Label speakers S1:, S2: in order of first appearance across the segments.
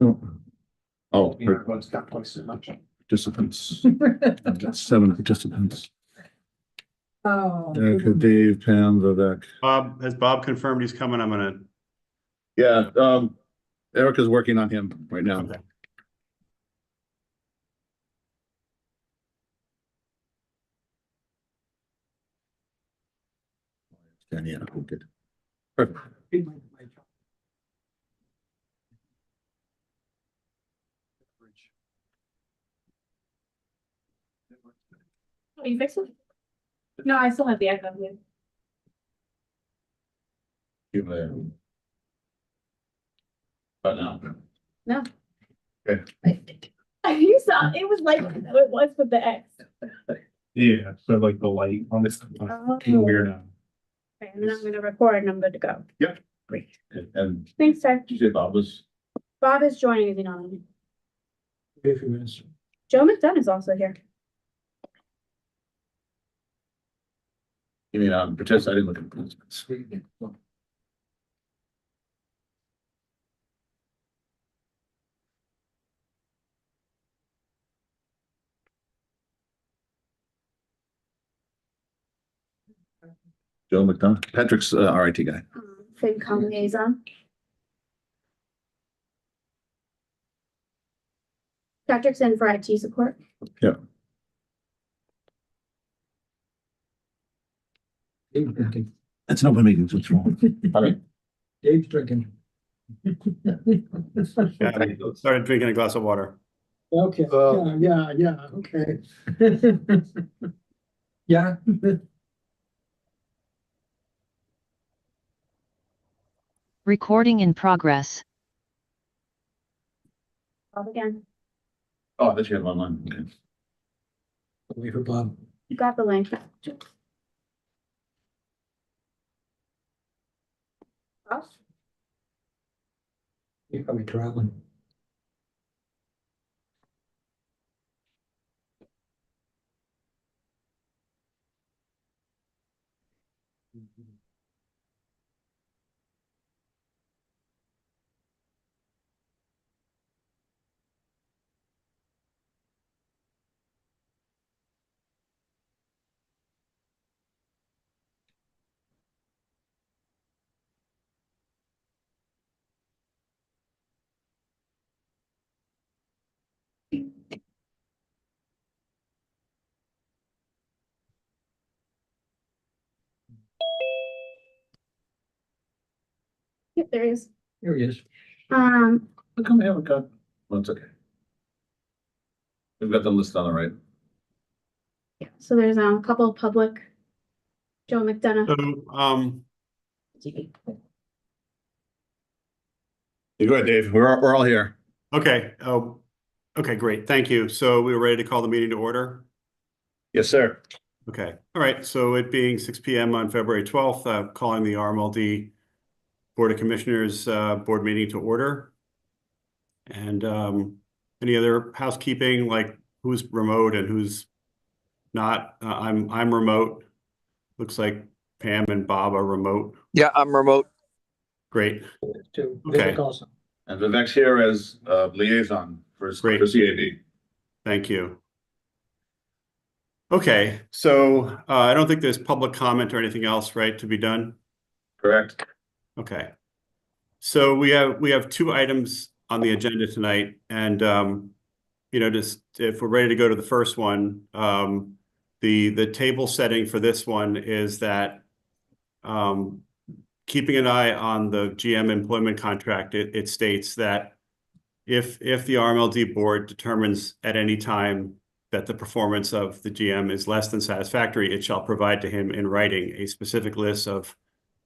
S1: Oh,
S2: We
S1: for
S2: heard one's got twice as much.
S1: participants, I've got seven participants.
S3: Oh.
S1: Erica, Dave, Pam, Vivek.
S4: Bob, has Bob confirmed he's coming? I'm gonna,
S1: Yeah, um, Erica's working on him right now.
S4: Okay.
S1: And yeah, who did?
S3: Are you fixing? it? No, I still have the echo here.
S1: Give it a- Oh, no.
S3: You saw, it was like, it was with the X.
S2: Yeah, so like the light on this. um,
S3: Okay, And then I'm gonna record and I'm good to go.
S1: And- And
S3: Thanks, sir.
S1: you say Bob was,
S3: Bob is joining, is he not? on?
S2: If you miss.
S3: Joe McDonough is also here.
S1: you mean, um, participant, I didn't look at participants. Joe McDonough, Patrick's uh, RIT guy.
S3: Um, FinCom liaison. Patrick's in for IT support.
S5: Dave's drinking.
S1: It's an open meeting, what's wrong?
S5: Dave's drinking.
S4: yeah, I started drinking a glass of water.
S5: Okay, yeah, yeah, yeah, okay. Yeah.
S6: Recording in progress.
S3: Bob again.
S1: Oh, that's you have online, okay.
S5: Wait for Bob.
S3: You got the link. Bob?
S5: He's probably traveling.
S3: Yep, there he is.
S5: Here he is.
S3: Um,
S1: How come I haven't got? Well, it's okay. We've got the list on the right.
S3: yeah, so there's um, a couple of public. Joe McDonough.
S4: So, um,
S1: You go ahead, Dave. We're, we're all here.
S4: okay, oh, okay, great, thank you. So we were ready to call the meeting to order?
S1: Yes, sir.
S4: Okay, all right, so it being six P M on February twelfth, uh, calling the RMLD Board of Commissioners, uh, board meeting to order. And, um, any other housekeeping, like who's remote and who's not? Uh, I'm, I'm remote. Looks like Pam and Bob are remote.
S7: Yeah, I'm remote.
S4: Great,
S5: Too.
S4: Okay.
S5: Vivek also.
S1: And Vivek's here as uh, liaison for, for
S4: Great.
S1: CAB.
S4: Thank you. Okay, so uh, I don't think there's public comment or anything else, right, to be done?
S1: Correct?
S4: Okay. So we have, we have two items on the agenda tonight and, um, you know, just if we're ready to go to the first one, um, the, the table setting for this one is that, um, keeping an eye on the GM employment contract, it, it states that if, if the RMLD board determines at any time that the performance of the GM is less than satisfactory, it shall provide to him in writing a specific list of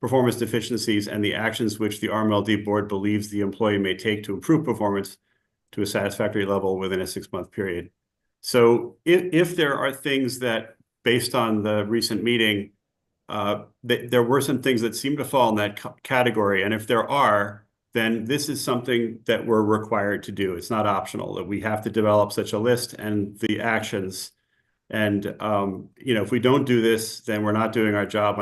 S4: performance deficiencies and the actions which the RMLD board believes the employee may take to improve performance to a satisfactory level within a six-month period. So if, if there are things that, based on the recent meeting, uh, that there were some things that seem to fall in that ca- category, and if there are, then this is something that we're required to do. It's not optional, that we have to develop such a list and the actions. And, um, you know, if we don't do this, then we're not doing our job